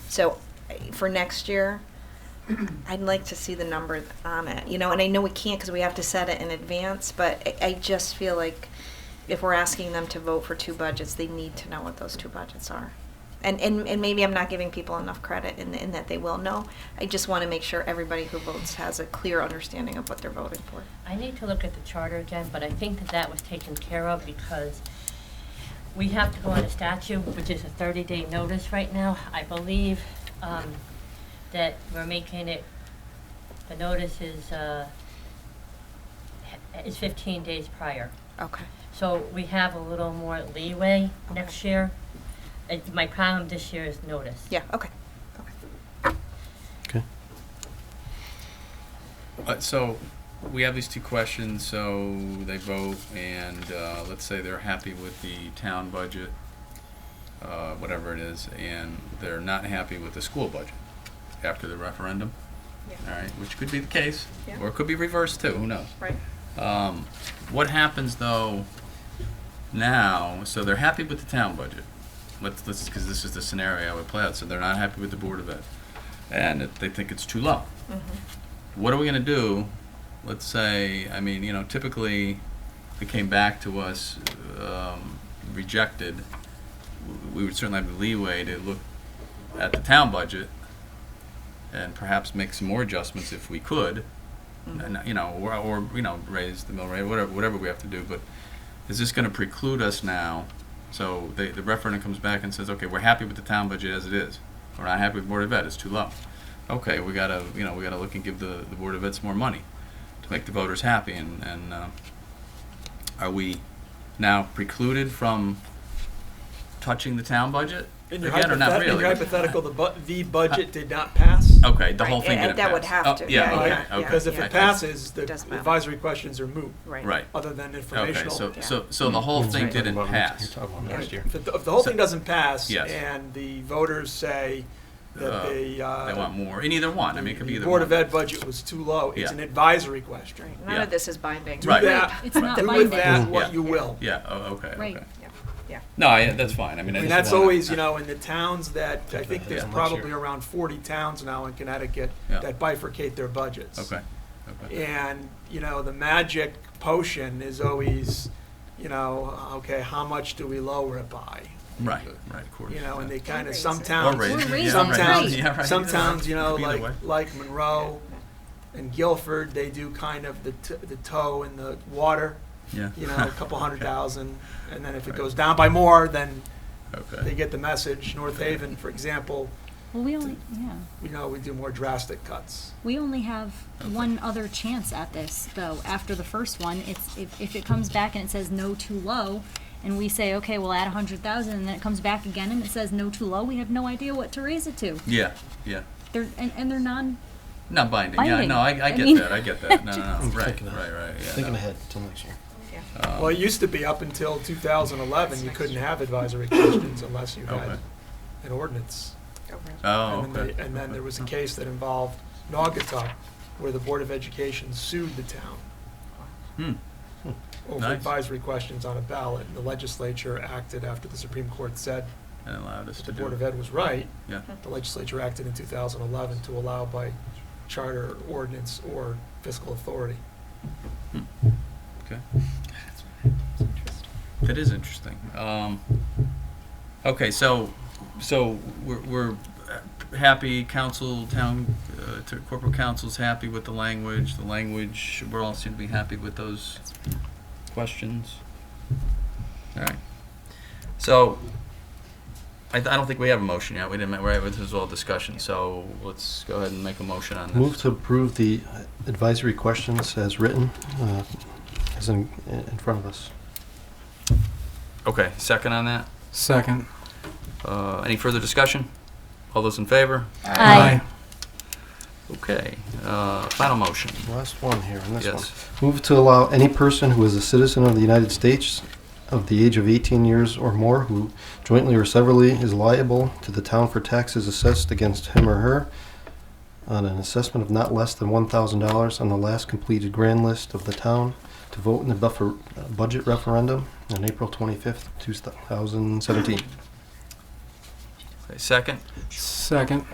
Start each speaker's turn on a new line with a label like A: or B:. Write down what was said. A: So for next year, I'd like to see the number on it, you know, and I know we can't because we have to set it in advance, but I, I just feel like if we're asking them to vote for two budgets, they need to know what those two budgets are. And, and, and maybe I'm not giving people enough credit in, in that they will know. I just want to make sure everybody who votes has a clear understanding of what they're voting for.
B: I need to look at the charter again, but I think that that was taken care of because we have to go on a statute, which is a 30-day notice right now. I believe um, that we're making it, the notice is, uh, h- is 15 days prior.
A: Okay.
B: So we have a little more leeway next
A: Okay.
B: year. It- My problem this year is notice.
A: Yeah, okay. Okay.
C: Okay.
D: Uh, so we have these two questions, so they vote, and uh, let's say they're happy with the town budget, uh, whatever it is, and they're not happy with the school budget after the referendum.
A: Yeah.
D: All right, which could be the case,
A: Yeah.
D: or it could be reversed too. Who knows?
A: Right.
D: Um, what happens though now? So they're happy with the town budget. Let's let's because this is the scenario I would play out. So they're not happy with the board of ed, and it, they think it's too low
A: Mm-hmm.
D: what are we going to do? Let's say, I mean, you know, typically if it came back to us um, rejected, w- we would certainly have the leeway to look at the town budget and perhaps make some more adjustments if we could, and, you know, or, or you know, raise the mill rate, whatever, whatever we have to do. But is this going to preclude us now? So the, the referendum comes back and says, okay, we're happy with the town budget as it is. We're not happy with Board of Ed, it's too low. Okay, we gotta, you know, we gotta look and give the, the Board of Ed some more money to make the voters happy and, and, uh, are we now precluded from touching the town budget?
E: In your,
D: Again, or not
E: hypothet- in
D: really?
E: your hypothetical, the, bu- the budget did not pass.
D: Okay, the
A: Right,
D: whole thing
A: and
D: didn't
A: that would
D: pass.
A: have
D: Oh,
A: to,
D: Yeah,
A: yeah,
D: okay,
A: yeah,
D: okay.
E: Because if
A: yeah.
D: I-
E: it passes, the
A: Doesn't matter.
E: advisory questions are moot,
A: Right.
D: Right,
E: other than
D: okay,
E: informational.
D: so,
A: Yeah.
D: so, so the whole thing didn't pass.
C: last year.
E: If, the, if the whole
D: So-
E: thing doesn't pass,
D: Yes.
E: and the voters say that
D: Uh,
E: the, uh,
D: They want more, in either one, I mean, it could be
E: the
D: either one.
E: Board of Ed budget was too low, it's
D: Yeah.
E: an advisory question.
A: None
D: Yeah.
A: of this is binding.
E: Do
D: Right.
E: that,
F: It's not
E: do
F: binding.
E: with that what
D: Yeah.
E: you will.
D: Yeah, oh, okay,
F: Right.
D: okay.
A: Yeah. Yeah.
D: No, I, that's fine, I mean, I just
E: And that's
D: wanna-
E: always, you know, in the towns that, I think there's
D: Yeah.
E: probably around 40 towns now in Connecticut
D: Yeah.
E: that bifurcate their budgets.
D: Okay, okay.
E: And, you know, the magic potion is always, you know, okay, how much do we lower it by?
D: Right, right, of course.
E: You know, and
D: yeah.
E: they kind
A: Fundraising.
E: of, some
D: Or
E: towns,
D: raise-
F: We're
D: yeah,
E: some
D: right,
E: towns,
D: yeah, right.
E: some towns, you know,
D: Could be either
E: like,
D: way.
E: like Monroe and Guilford, they do kind of the, t- the toe in the water,
D: Yeah.
E: you know, a couple hundred
D: Okay.
E: thousand. And then if it
D: Right.
E: goes down by more, then they
D: Okay.
E: get the message. North Haven, for example,
F: Well, we only, yeah,
E: we know we do more drastic cuts.
F: we only have one other chance at this, though. After the first one, it's, if, if it comes back and it says no too low, and we say, okay, we'll add a hundred thousand, and then it comes back again and it says no too low, we have no idea what to raise it to.
D: Yeah, yeah.
F: They're, and, and they're non,
D: Not binding. Yeah,
F: Binding.
D: no, I, I
F: I
D: get
F: mean-
D: that. I get that. No, no, no.
C: I'm
D: Right,
C: thinking
D: right,
C: of-
D: right. Yeah,
C: Thinking
D: no.
C: ahead till next year.
D: Um,
E: Well, it used to be up until 2011, you couldn't have advisory questions unless you had
D: Okay.
E: an ordinance.
D: Oh,
E: And then
D: okay.
E: they- and then there was a case that involved Naugatuck, where the Board of Education sued the town
D: Hmm.
E: over
D: Nice.
E: advisory questions on a ballot, and the legislature acted after the Supreme Court said
D: And allowed us
E: that
D: to
E: the
D: do
E: Board of
D: it.
E: Ed was right.
D: Yeah.
E: The legislature acted in 2011 to allow by charter, ordinance, or fiscal authority.
D: Hmm. Okay. That is interesting. Um, okay, so so we're, we're uh, happy. Council, town, uh, to corporate council's happy with the language. The language. We're all seem to be happy with those questions. All right. So I, th- I don't think we have a motion yet. We didn't. ma- Right. This is all discussion. So let's go ahead and make a motion on this.
C: Move to approve the uh, advisory questions as written, uh, as in, in front of us.
D: Okay, second on that?
G: Second.
D: Uh, Any further discussion? All those in favor?
F: Aye.
D: Okay, uh, final motion.
C: Last one here, and this one.
D: Yes.
C: Move to allow any person who is a citizen of the United States of the age of 18 years or more who jointly or severally is liable to the town for taxes assessed against him or her on an assessment of not less than $1,000 on the last completed grand list of the town to vote in the buffer, uh, budget referendum on April 25th, 2017.
D: Okay, second?
G: Second.